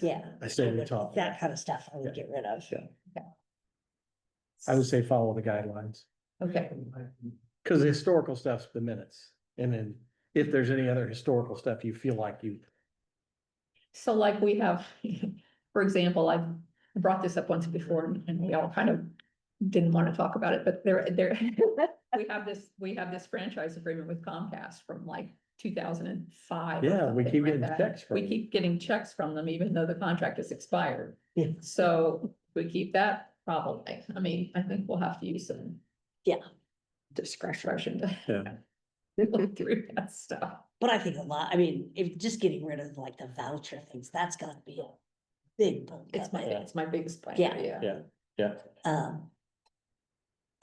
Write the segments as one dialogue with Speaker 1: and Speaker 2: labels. Speaker 1: Yeah.
Speaker 2: I stay on top.
Speaker 1: That kind of stuff I would
Speaker 2: Yeah.
Speaker 1: get rid of.
Speaker 2: Yeah. I would say follow the guidelines,
Speaker 3: Okay,
Speaker 2: because the historical stuff's the minutes. And then if there's any other historical stuff you feel like you,
Speaker 3: so like we have, for example, I brought this up once before and- and we all kind of didn't want to talk about it, but there, there, we have this, we have this franchise agreement with Comcast from like two thousand and five.
Speaker 2: yeah, we keep getting checks from.
Speaker 3: We keep getting checks from them even though the contract is expired.
Speaker 1: Yeah.
Speaker 3: So we keep that probably. I mean, I think we'll have to use some.
Speaker 1: Yeah.
Speaker 3: Discretion
Speaker 2: Yeah.
Speaker 3: to look through that stuff.
Speaker 1: But I think a lot, I mean, if just getting rid of like the voucher things, that's gotta be a big bulk
Speaker 3: It's
Speaker 1: of
Speaker 3: my,
Speaker 1: it.
Speaker 3: it's my biggest plan.
Speaker 1: Yeah.
Speaker 2: Yeah,
Speaker 1: Um.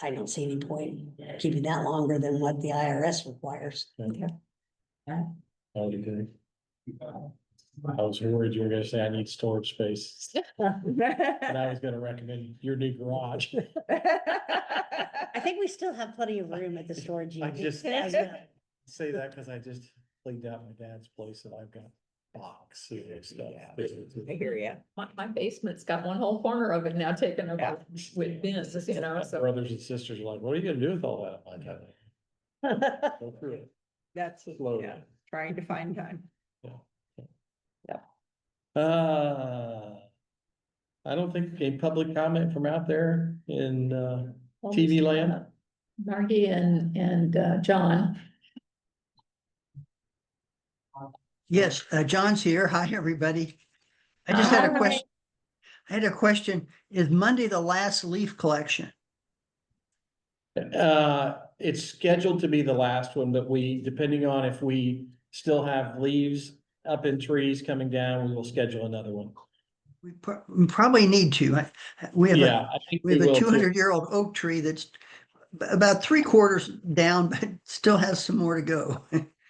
Speaker 1: I don't see any point keeping that longer than what the IRS requires.
Speaker 2: I would agree. Oh, I was worried you were gonna say I need storage space, and I was gonna recommend your new garage.
Speaker 1: I think we still have plenty of room at the storage
Speaker 2: I
Speaker 1: unit.
Speaker 2: just-
Speaker 1: as well.
Speaker 2: Say that because I just cleaned out my dad's place and I've got boxes and stuff.
Speaker 4: I hear you.
Speaker 3: My, my basement's got one whole corner of it now taken
Speaker 4: Yeah.
Speaker 3: over with bins, you know,
Speaker 2: My
Speaker 3: so.
Speaker 2: Brothers and sisters are like, what are you gonna do with all that? I'm like, "Go through it
Speaker 4: That's,
Speaker 2: slowly."
Speaker 4: yeah, trying to find time.
Speaker 2: Uh, I don't think a public comment from out there in, uh, TV land?
Speaker 3: Margie and, and, uh, John.
Speaker 5: Yes, uh, John's here. Hi, everybody. I just had a
Speaker 3: Hi.
Speaker 5: question. I had a question. Is Monday the last leaf collection?
Speaker 2: Uh, it's scheduled to be the last one, but we, depending on if we still have leaves up in trees coming down, we will schedule another one.
Speaker 5: We pro- we probably need to. I- We have
Speaker 2: Yeah,
Speaker 5: a,
Speaker 2: I think
Speaker 5: we
Speaker 2: we
Speaker 5: have a
Speaker 2: will
Speaker 5: two
Speaker 2: too.
Speaker 5: hundred year old oak tree that's b- about three quarters down, but still has some more to go.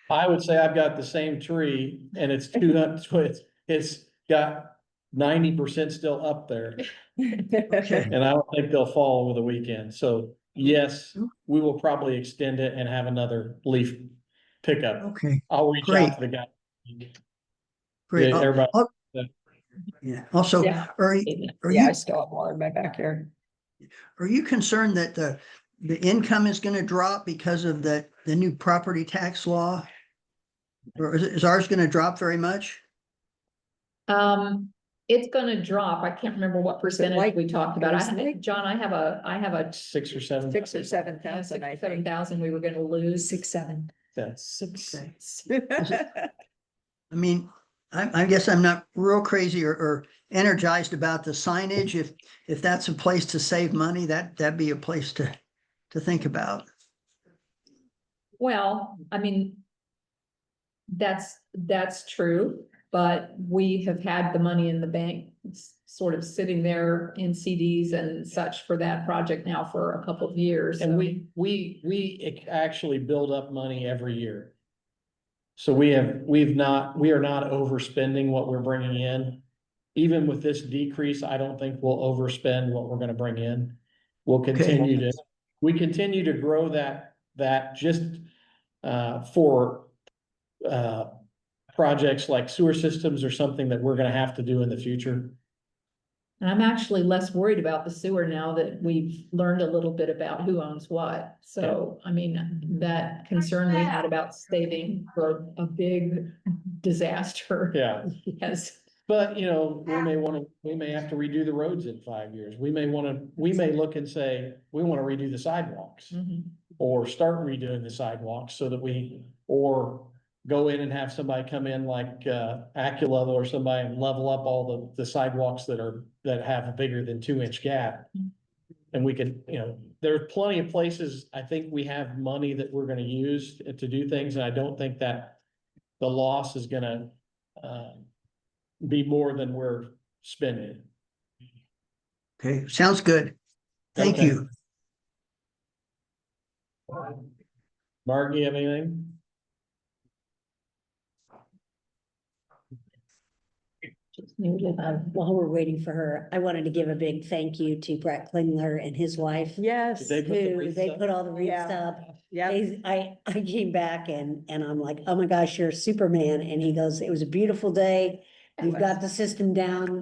Speaker 2: I would say I've got the same tree and it's two hundred, it's got ninety percent still up there.
Speaker 5: Okay.
Speaker 2: And I don't think they'll fall over the weekend. So yes, we will probably extend it and have another leaf pickup.
Speaker 5: Okay,
Speaker 2: I'll reach
Speaker 5: Great.
Speaker 2: out to the guy.
Speaker 5: great.
Speaker 2: Yeah,
Speaker 5: Al-
Speaker 2: Everybody,
Speaker 5: yeah. Also,
Speaker 3: Yeah.
Speaker 5: are, y- are
Speaker 4: Yeah,
Speaker 5: you,
Speaker 4: I still have more in my backyard.
Speaker 5: are you concerned that the, the income is going to drop because of the, the new property tax law? Or is, is ours going to drop very much?
Speaker 3: Um, it's gonna drop. I can't remember what percentage
Speaker 4: like-
Speaker 3: we talked about. I,
Speaker 4: isn't it?
Speaker 3: John, I have a, I have a
Speaker 2: six or seven.
Speaker 4: Six or seven thousand, I
Speaker 3: seven
Speaker 4: think.
Speaker 3: thousand we were gonna lose. Six, seven.
Speaker 2: That's
Speaker 5: Okay. I mean, I, I guess I'm not real crazy or, or energized about the signage. If, if that's a place to save money, that, that'd be a place to, to think about.
Speaker 3: Well, I mean. That's, that's true, but we have had the money in the bank s- sort of sitting there in CDs and such for that project now for a couple of years.
Speaker 2: And
Speaker 3: so-
Speaker 2: we, we, we ac- actually build up money every year. So we have, we've not, we are not overspending what we're bringing in. Even with this decrease, I don't think we'll overspend what we're gonna bring in. We'll continue to, we continue to grow that, that just, uh, for, uh, projects like sewer systems or something that we're gonna have to do in the future.
Speaker 3: And I'm actually less worried about the sewer now that we've learned a little bit about who owns what. So, I mean, that concern we had about saving for a big disaster.
Speaker 2: Yeah.
Speaker 3: Yes,
Speaker 2: But, you know, we may wanna, we may have to redo the roads in five years. We may wanna, we may look and say, we wanna redo the sidewalks. Or start redoing the sidewalks so that we, or go in and have somebody come in like, uh, Acula or somebody and level up all the, the sidewalks that are, that have a bigger than two inch gap. And we can, you know, there are plenty of places, I think we have money that we're gonna use to do things, and I don't think that the loss is gonna, uh, be more than we're spending.
Speaker 5: Okay, sounds good. Thank
Speaker 2: Okay.
Speaker 5: you.
Speaker 2: Mark, you have anything?
Speaker 1: Um, While we're waiting for her, I wanted to give a big thank you to Brett Klingler and his wife.
Speaker 4: Yes.
Speaker 2: They put the
Speaker 1: Who,
Speaker 2: wreaths
Speaker 1: they
Speaker 2: up?
Speaker 1: put all the wreaths
Speaker 4: Yeah.
Speaker 1: up.
Speaker 4: Yeah,
Speaker 1: They- I, I came back and, and I'm like, oh my gosh, you're Superman. And he goes, it was a beautiful day. You've got the system down.